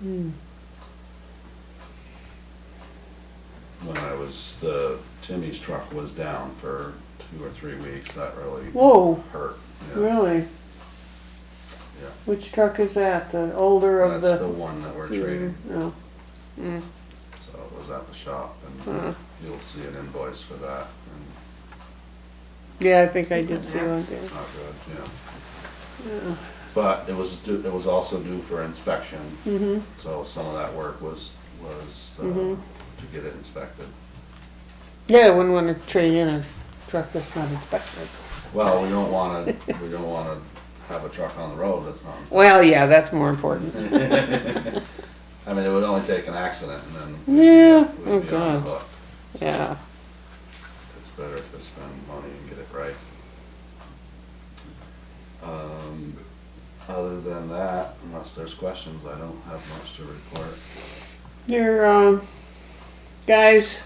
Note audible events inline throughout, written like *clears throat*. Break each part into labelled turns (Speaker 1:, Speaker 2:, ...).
Speaker 1: Hmm.
Speaker 2: when I was, the, Timmy's truck was down for two or three weeks, that really
Speaker 1: Whoa,
Speaker 2: hurt. yeah.
Speaker 1: really?
Speaker 2: Yeah.
Speaker 1: Which truck is that? The older of
Speaker 2: That's the
Speaker 1: the? Hmm.
Speaker 2: one that we're trading,
Speaker 1: No. Mm,
Speaker 2: so it was at the shop,
Speaker 1: uh,
Speaker 2: and you'll see an invoice for that, and
Speaker 1: Yeah, I think I
Speaker 3: It's in
Speaker 1: did see
Speaker 3: there.
Speaker 1: one there.
Speaker 2: it's not good, yeah.
Speaker 1: Yeah.
Speaker 2: But it was, due- it was also due for inspection,
Speaker 1: Mm-hmm.
Speaker 2: so some of that work was, was uh,
Speaker 1: Mhm.
Speaker 2: to get it inspected.
Speaker 1: Yeah, I wouldn't wanna trade in a truck that's not inspected.
Speaker 2: Well, we don't wanna, we don't wanna have a truck on the road that's
Speaker 1: *laughs*
Speaker 2: not
Speaker 1: Well, yeah, that's more important.
Speaker 2: I mean, it would only take an accident and then. we'd be-
Speaker 1: Yeah,
Speaker 2: we'd
Speaker 1: oh
Speaker 2: be on the
Speaker 1: God.
Speaker 2: hook.
Speaker 1: Yeah,
Speaker 2: It's better to spend money and get it right. Um, other than that, unless there's questions, I don't have much to report.
Speaker 1: your, um, guys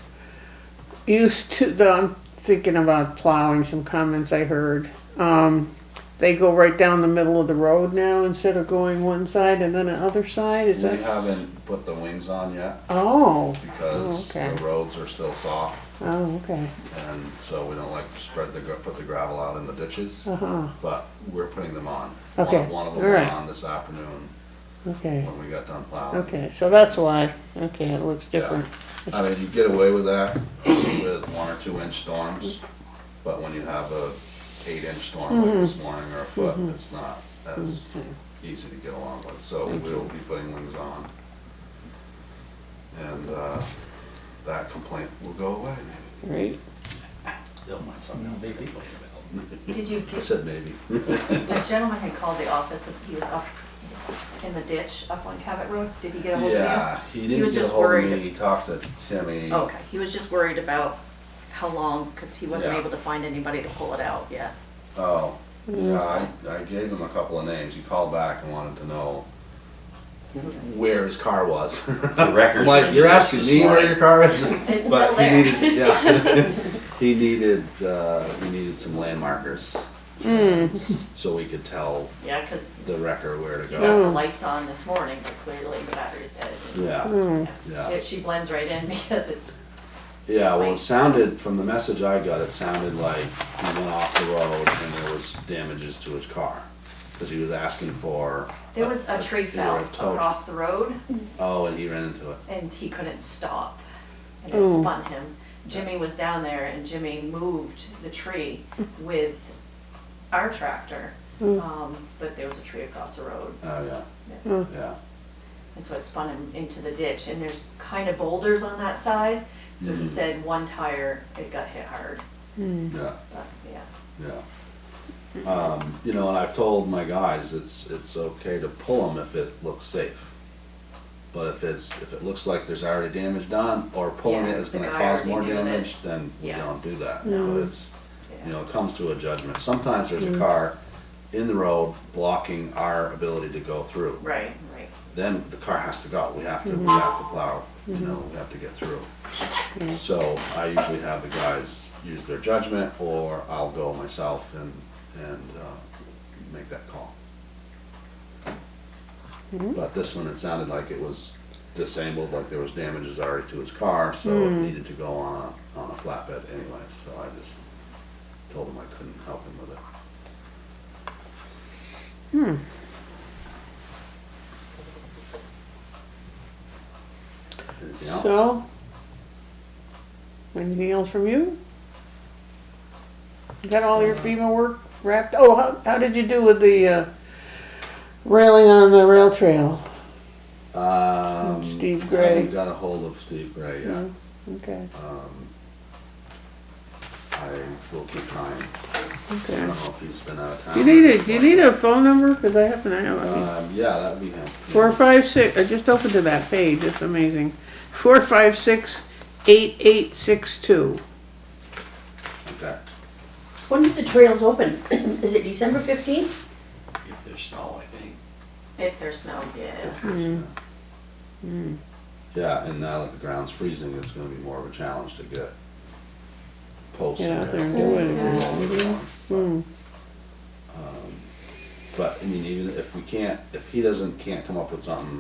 Speaker 1: used to, the, I'm thinking about plowing, some comments I heard. Um, they go right down the middle of the road now instead of going one side and then the other side, is
Speaker 2: We
Speaker 1: that?
Speaker 2: haven't put the wings on yet
Speaker 1: Oh,
Speaker 2: because
Speaker 1: Oh, okay.
Speaker 2: the roads are still soft
Speaker 1: oh, okay,
Speaker 2: and so we don't like to spread the, gra- put the gravel out in the ditches.
Speaker 1: uh-huh,
Speaker 2: But we're putting them on.
Speaker 1: Okay,
Speaker 2: One one of them
Speaker 1: all
Speaker 2: went
Speaker 1: right.
Speaker 2: on this afternoon
Speaker 1: okay,
Speaker 2: when we got done plowing.
Speaker 1: okay, so that's why, okay, it looks
Speaker 2: Yeah.
Speaker 1: different.
Speaker 2: I mean, you get away with that with one or two inch storms, but when you have a eight inch storm
Speaker 1: Mm-hmm.
Speaker 2: like this morning or a foot, it's not as easy to get along with, so we'll be putting wings on. And, uh, that complaint will go away maybe.
Speaker 1: Right,
Speaker 4: They'll find something else to complain about.
Speaker 3: Did you
Speaker 2: I
Speaker 3: get,
Speaker 2: said maybe.
Speaker 3: a gentleman had called the office, he was up in the ditch up on Cabot Road, did he get a hold of you?
Speaker 2: Yeah, he
Speaker 3: was
Speaker 2: didn't get
Speaker 3: just
Speaker 2: ahold of
Speaker 3: worried.
Speaker 2: me, he talked to Timmy.
Speaker 3: Okay, he was just worried about how long, because he wasn't
Speaker 2: Yeah.
Speaker 3: able to find anybody to pull it out yet.
Speaker 2: Oh, yeah, I, I gave him a couple of names, he called back and wanted to know where his car
Speaker 3: *laughs*
Speaker 2: was.
Speaker 4: The record.
Speaker 2: I'm like, you're asking me where your car is?
Speaker 3: It's
Speaker 2: But
Speaker 3: still
Speaker 2: he
Speaker 3: there.
Speaker 2: needed,
Speaker 3: *laughs*
Speaker 2: yeah. he needed, uh, he needed some landmarkers. So we could tell
Speaker 3: Yeah, because
Speaker 2: the wrecker where to
Speaker 3: he got the
Speaker 2: go.
Speaker 1: Mm.
Speaker 3: lights on this morning, but clearly the battery's dead.
Speaker 2: Yeah,
Speaker 3: Yeah.
Speaker 2: Yeah.
Speaker 3: It- She blends right in *laughs* because it's,
Speaker 2: yeah, well, it sounded, from the message I got, it sounded like he went off the road and there was damages to his car. Cause he was asking for.
Speaker 3: there was a tree
Speaker 2: either a
Speaker 3: fell
Speaker 2: tow-
Speaker 3: across the road
Speaker 2: Oh, and he ran into it.
Speaker 3: and he couldn't stop. And it
Speaker 1: Ooh.
Speaker 3: spun him. Jimmy was down there and Jimmy moved
Speaker 5: *laughs*
Speaker 3: the tree with our tractor.
Speaker 5: Mm.
Speaker 3: Um, but there was a tree across the road.
Speaker 2: Oh,
Speaker 3: Yeah.
Speaker 5: Mm.
Speaker 2: yeah, yeah.
Speaker 3: And so it spun him into the ditch, and there's kind of boulders on that side. So
Speaker 5: Mm.
Speaker 3: he
Speaker 2: Mhm.
Speaker 3: said one tire, it got hit hard,
Speaker 2: Yeah,
Speaker 3: but yeah.
Speaker 2: yeah. Um, you know, and I've told my guys, it's, it's okay to pull them if it looks safe. But if it's, if it looks like there's already damage done, or pulling it
Speaker 3: Yeah,
Speaker 2: is
Speaker 3: the
Speaker 2: gonna
Speaker 3: guy
Speaker 2: cause
Speaker 3: already
Speaker 2: more
Speaker 3: knew that.
Speaker 2: damage, then we
Speaker 3: Yeah.
Speaker 2: don't do that.
Speaker 3: No.
Speaker 2: But it's, you know,
Speaker 3: yeah.
Speaker 2: it comes to a judgment. Sometimes there's a car in the road blocking our ability to go through.
Speaker 3: Right, right.
Speaker 2: Then the car has to go. We have to, we have to plow, you know, we have to get through.
Speaker 1: Yeah.
Speaker 2: So I usually have the guys use their judgment, or I'll go myself and, and, uh, make that call. But this one, it sounded like it was disabled, like there was damages already to his car, so it needed to go on, a- on a flatbed anyway, so I just told him I couldn't help him with it. Anything else?
Speaker 1: so, anything else from you? You Got all your FEMA work wrapped, oh, how, how did you do with the, uh, railing on the rail trail?
Speaker 2: Um,
Speaker 1: Steve
Speaker 2: I haven't
Speaker 1: Gray.
Speaker 2: got a hold of Steve Gray yet.
Speaker 1: No? Okay,
Speaker 2: Um, I will keep trying. I
Speaker 1: okay.
Speaker 2: don't know if he's been out of town.
Speaker 1: You need a, you need a phone number, cause I happen to have, I mean,
Speaker 2: Um, yeah, that'd be him.
Speaker 1: four, five, six, I just opened to that page, it's amazing. Four, five, six, eight, eight, six, two.
Speaker 2: Okay.
Speaker 5: When did the trails open? *clears throat* Is it December fifteenth?
Speaker 4: If there's snow, I think.
Speaker 3: If there's snow, yeah.
Speaker 1: Hmm.
Speaker 2: Yeah, and now that the ground's freezing, it's gonna be more of a challenge to get posts.
Speaker 1: Get out
Speaker 2: in
Speaker 1: there and do it. Hmm,
Speaker 2: um, But, I mean, even if we can't, if he doesn't, can't come up with something,